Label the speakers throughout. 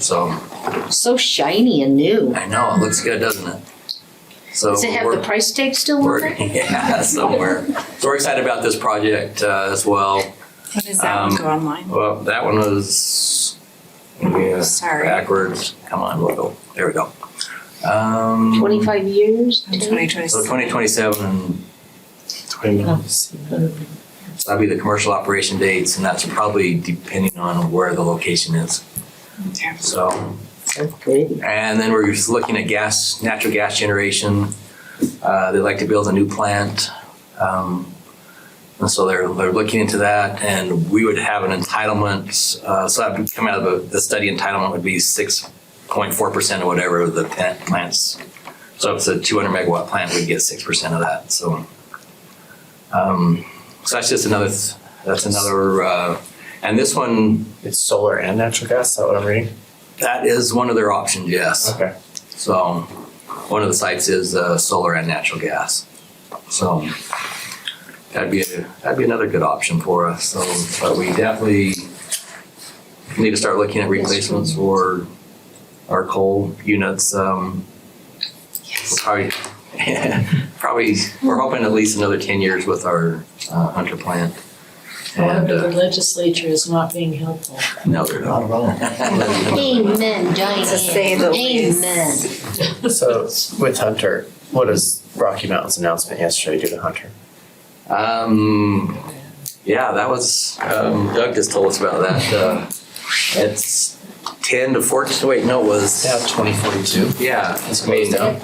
Speaker 1: So
Speaker 2: So shiny and new.
Speaker 1: I know it looks good, doesn't it? So
Speaker 2: Does it have the
Speaker 1: we're-
Speaker 2: price tag still on
Speaker 1: we're-
Speaker 2: it?
Speaker 1: yeah, somewhere. So we're excited about this project uh, as well.
Speaker 3: How does that one
Speaker 1: Um,
Speaker 3: go online?
Speaker 1: Well, that one was yeah,
Speaker 3: Sorry.
Speaker 1: backwards. Come on, we'll go. There we go. Um,
Speaker 2: Twenty-five years?
Speaker 3: In
Speaker 2: too?
Speaker 3: 2026.
Speaker 1: So 2027, and
Speaker 2: Oh.
Speaker 1: so that'll be the commercial operation dates, and that's probably depending on where the location is.
Speaker 3: Okay.
Speaker 1: So.
Speaker 2: So pretty.
Speaker 1: And then we're just looking at gas, natural gas generation. Uh, They'd like to build a new plant. Um, And so they're, they're looking into that and we would have an entitlement, uh, so that would come out of the, the study entitlement would be six point four percent or whatever the plant plants. So if it's a two hundred megawatt plant, we'd get six percent of that, so. um, So that's just another, th- that's another, uh, and this one,
Speaker 4: It's solar and natural gas. Is that what I'm reading?
Speaker 1: that is one of their options, yes.
Speaker 4: Okay.
Speaker 1: So one of the sites is uh, solar and natural gas. So that'd be, that'd be another good option for us. So, but we definitely need to start looking at replacements for our coal units. Um,
Speaker 3: Yes.
Speaker 1: Probably, probably, we're hoping at least another 10 years with our uh, Hunter plant. And
Speaker 5: However, the
Speaker 1: uh,
Speaker 5: legislature is not being helpful.
Speaker 1: no, they're not.
Speaker 2: Amen, Diane.
Speaker 3: To say the least.
Speaker 2: Amen.
Speaker 4: So with Hunter, what does Rocky Mountain's announcement yesterday do to Hunter?
Speaker 1: Um, yeah, that was, um, Doug just told us about that. Uh, it's 10 to 14, wait, no, it was,
Speaker 4: twenty forty two.
Speaker 1: yeah, I mean, um,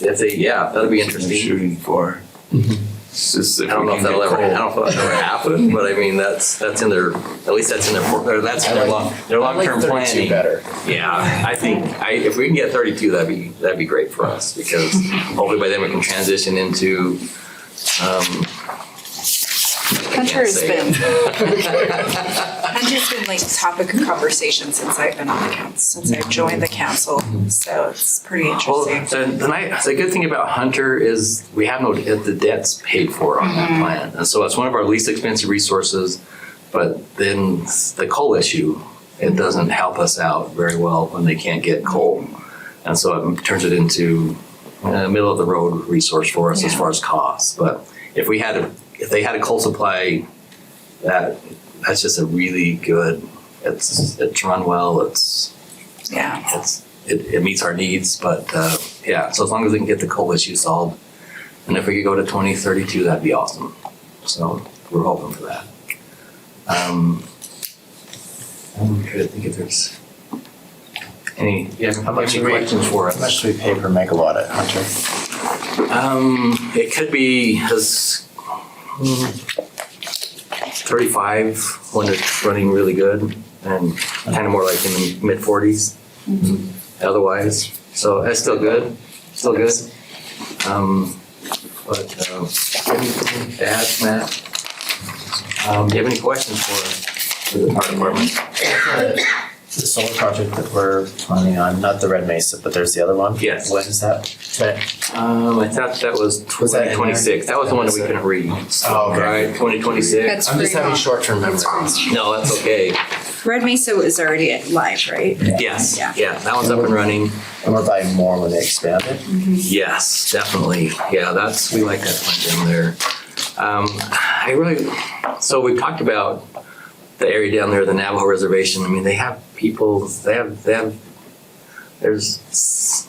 Speaker 1: if they, yeah, that'd be interesting.
Speaker 6: shooting for.
Speaker 7: Mm-hmm.
Speaker 6: It's just
Speaker 1: I
Speaker 6: if
Speaker 1: don't
Speaker 6: we
Speaker 1: know if
Speaker 6: can
Speaker 1: that'll
Speaker 6: get
Speaker 1: ever, I
Speaker 6: coal.
Speaker 1: don't know if that'll ever happen, but I mean, that's, that's in their, at least that's in their, for- or that's in their long, their long-term planning.
Speaker 4: better.
Speaker 1: Yeah, I think, I, if we can get thirty-two, that'd be, that'd be great for us, because hopefully by then we can transition into, um.
Speaker 3: Hunter has
Speaker 1: Say it.
Speaker 3: been, Hunter's been like topic of conversation since I've been on the council, since I've joined the council. So it's pretty
Speaker 1: Well,
Speaker 3: interesting.
Speaker 1: the, the, night, the good thing about Hunter is we have no the debt's paid for on
Speaker 3: Mm-hmm.
Speaker 1: that plan, and so it's one of our least expensive resources. But then the coal issue, it doesn't help us out very well when they can't get coal, and so it turns it into a middle of the road resource for us as
Speaker 3: Yeah.
Speaker 1: far as costs. But if we had a, if they had a coal supply, that that's just a really good. It's it's run well. It's
Speaker 3: Yeah.
Speaker 1: it's, it, it meets our needs, but uh, yeah, so as long as we can get the coal issue solved, and if we could go to 2032, that'd be awesome. So we're hoping for that. Um, I'm trying to think if there's any, yeah,
Speaker 4: How much
Speaker 1: any
Speaker 4: do we-
Speaker 1: questions for
Speaker 4: How much
Speaker 1: us?
Speaker 4: do we pay per megawatt at Hunter?
Speaker 1: Um, it could be as mm, 35 when it's running really good, and kind of more like in the mid 40s.
Speaker 4: Mm-hmm.
Speaker 1: Otherwise, so that's still good, still good. Um, but um, anything to add, Matt? Um, do you have any questions for us for the fire department?
Speaker 4: The solar project that we're planning on, not the Red Mesa, but there's the other one.
Speaker 1: Yes.
Speaker 4: When is that?
Speaker 1: Um, I thought that was
Speaker 4: Was that in there?
Speaker 1: 2026. That was the one that we couldn't read.
Speaker 4: Oh, okay.
Speaker 1: Right, 2026.
Speaker 3: That's
Speaker 4: I'm just
Speaker 3: pretty
Speaker 4: having
Speaker 3: long.
Speaker 4: short term memory.
Speaker 1: No, that's okay.
Speaker 3: Red Mesa is already live, right?
Speaker 1: Yes,
Speaker 3: Yeah.
Speaker 1: yeah, that one's up and running.
Speaker 4: And we're buying more when they expand it.
Speaker 1: Yes, definitely. Yeah, that's, we like that one down there. Um, I really, so we talked about the area down there, the Navajo Reservation. I mean, they have people, they have, they have, there's s-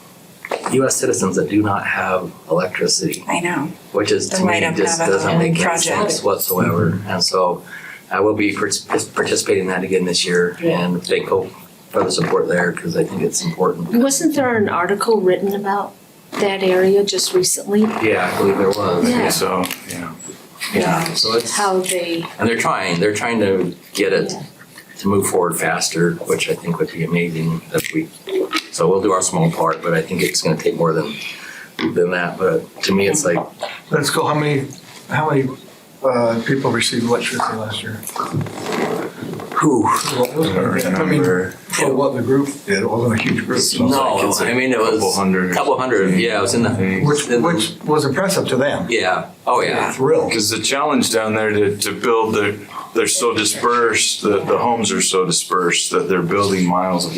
Speaker 1: US citizens that do not have electricity
Speaker 3: I know.
Speaker 1: which is
Speaker 3: They
Speaker 1: to me
Speaker 3: might have
Speaker 1: just
Speaker 3: another
Speaker 1: doesn't make any
Speaker 3: project.
Speaker 1: sense whatsoever. And so I will be partic- participating in that again this year
Speaker 5: Yeah.
Speaker 1: and thankful for the support there because I think it's important.
Speaker 2: Wasn't there an article written about that area just recently?
Speaker 1: Yeah, I believe there was.
Speaker 2: Yeah.
Speaker 6: So, yeah.
Speaker 1: Yeah, so it's,
Speaker 2: How they,
Speaker 1: and they're trying, they're trying to get it
Speaker 2: Yeah.
Speaker 1: to move forward faster, which I think would be amazing if we, so we'll do our small part, but I think it's gonna take more than, than that. But to me, it's like,
Speaker 7: That's cool. How many, how many uh, people received electricity last year?
Speaker 1: whew,
Speaker 6: I don't
Speaker 7: I mean,
Speaker 6: remember.
Speaker 7: for what the group did, it wasn't a huge group.
Speaker 6: Sounds like
Speaker 1: No,
Speaker 6: it's a
Speaker 1: I mean, it was
Speaker 6: Couple hundred.
Speaker 1: couple hundred, yeah, it was in the.
Speaker 7: Which,
Speaker 1: in the-
Speaker 7: which was impressive to them.
Speaker 1: Yeah, oh yeah.
Speaker 7: Thrilled.
Speaker 6: Because the challenge down there to, to build, they're, they're so dispersed, the, the homes are so dispersed that they're building miles of